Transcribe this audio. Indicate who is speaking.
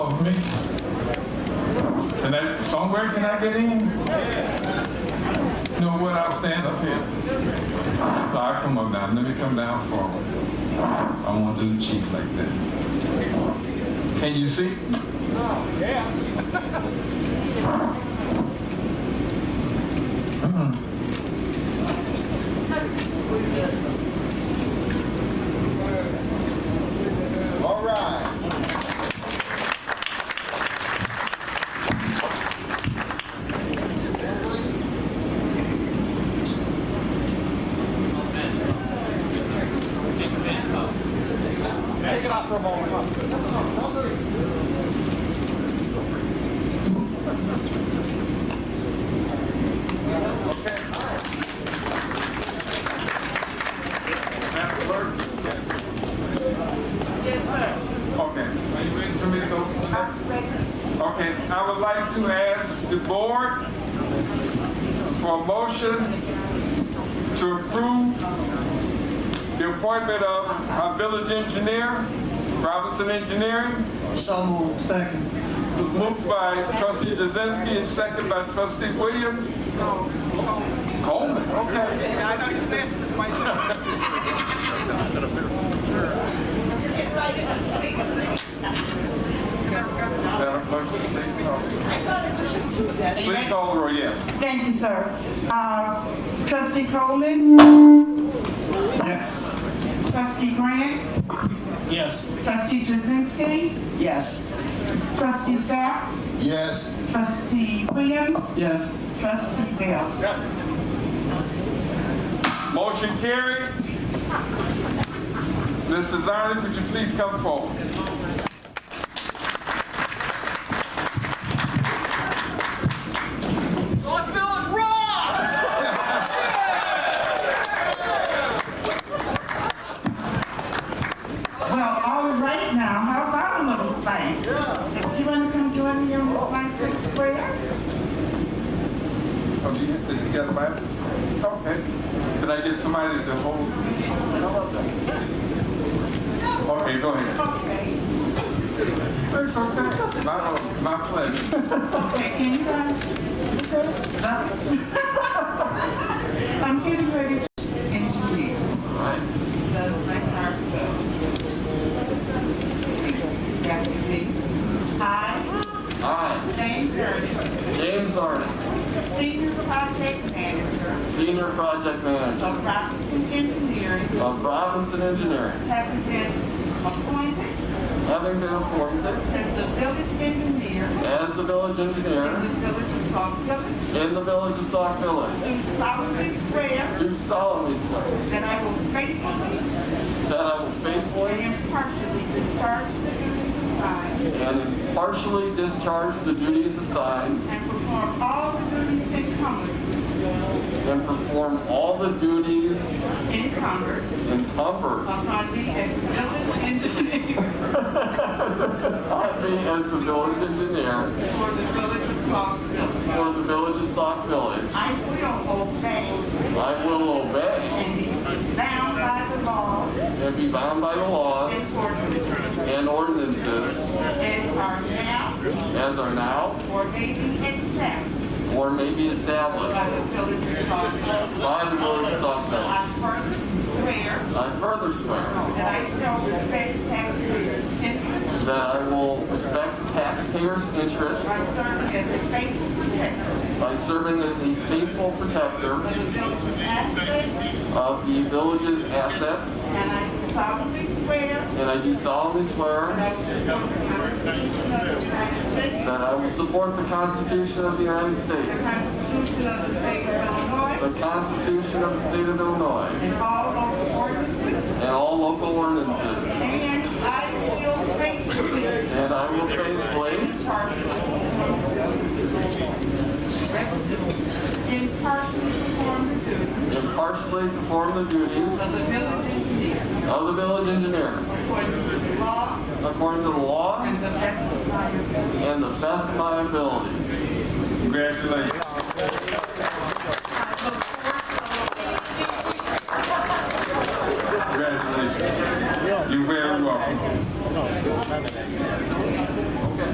Speaker 1: of me? Can I, somewhere can I get in? You know what, I'll stand up here. All right, come on down, let me come down forward. I won't do the cheek like that. Can you see?
Speaker 2: All right.
Speaker 1: Okay, are you ready for me to go? Okay, I would like to ask the board for a motion to approve the appointment of our village engineer, Robinson Engineering,
Speaker 3: So moved. Second.
Speaker 1: moved by trustee Jazinski and second by trustee Williams. Coleman, okay. Madam Clerk, please take roll. Please call the roll, yes.
Speaker 4: Thank you, sir. Uh, Trustee Coleman,
Speaker 3: Yes.
Speaker 4: trustee Grant,
Speaker 3: Yes.
Speaker 4: trustee Jazinski,
Speaker 3: Yes.
Speaker 4: trustee Sapp,
Speaker 2: Yes.
Speaker 4: trustee Williams,
Speaker 3: Yes.
Speaker 4: trustee Bell.
Speaker 1: Motion carried. Mr. Zarni, would you please come forward?
Speaker 4: Well, all right now, how about a little spice? You want to come join me on the spice square?
Speaker 1: Oh, do you, does he got a Bible? Okay. Can I get somebody to hold? Okay, go ahead. It's okay. My, my pleasure.
Speaker 4: Okay, can you guys? I'm getting ready to interview. So, my heart, uh, Back to me. I,
Speaker 5: I,
Speaker 4: James Hurd,
Speaker 5: James Arden,
Speaker 4: Senior Project Manager
Speaker 5: Senior Project Manager
Speaker 4: of Robinson Engineering,
Speaker 5: of Robinson Engineering,
Speaker 4: have been appointed
Speaker 5: having been appointed
Speaker 4: as the village engineer
Speaker 5: as the village
Speaker 4: in the
Speaker 5: engineer
Speaker 4: village of South Village
Speaker 5: in the village of Sauk Village,
Speaker 4: do solemnly swear
Speaker 5: do solemnly swear
Speaker 4: that I will faithfully
Speaker 5: that I will faithfully
Speaker 4: and impartially discharge the duties assigned
Speaker 5: and impartially discharge the duties assigned
Speaker 4: and perform all the duties incumbent
Speaker 5: and perform all the duties
Speaker 4: incumbent
Speaker 5: incumbent
Speaker 4: upon me as village engineer
Speaker 5: on me as the village engineer
Speaker 4: for the village of Saltville.
Speaker 5: for the village of Sauk Village.
Speaker 4: I will obey
Speaker 5: I will obey
Speaker 4: and be bound by the laws
Speaker 5: and be bound by the laws
Speaker 4: and ordinances
Speaker 5: and ordinances
Speaker 4: as are now
Speaker 5: as are now
Speaker 4: or may be established
Speaker 5: or may be
Speaker 4: by
Speaker 5: established
Speaker 4: the village of Saltville.
Speaker 5: by the village of Stockton.
Speaker 4: I further swear
Speaker 5: I further swear
Speaker 4: That I shall respect taxpayers' interests
Speaker 5: that I will respect taxpayers' interests
Speaker 4: by serving as a faithful protector
Speaker 5: by serving as a faithful protector
Speaker 4: of the village's assets,
Speaker 5: of the village's assets,
Speaker 4: and I solemnly swear
Speaker 5: and I do solemnly swear
Speaker 4: that I will support the Constitution of the United States,
Speaker 5: that I will support the Constitution of
Speaker 4: the Constitution of the State of Illinois,
Speaker 5: the United States, the Constitution of the State of Illinois,
Speaker 4: and all local ordinances,
Speaker 5: and all local ordinances,
Speaker 4: and I will faithfully,
Speaker 5: and I will faithfully,
Speaker 4: impartially, impartially perform the duties
Speaker 5: impartially perform the duties
Speaker 4: of the village engineer
Speaker 5: of the village engineer
Speaker 4: according to the law
Speaker 5: according to the law
Speaker 4: and the best of my ability.
Speaker 5: and the best of my ability.
Speaker 1: Congratulations.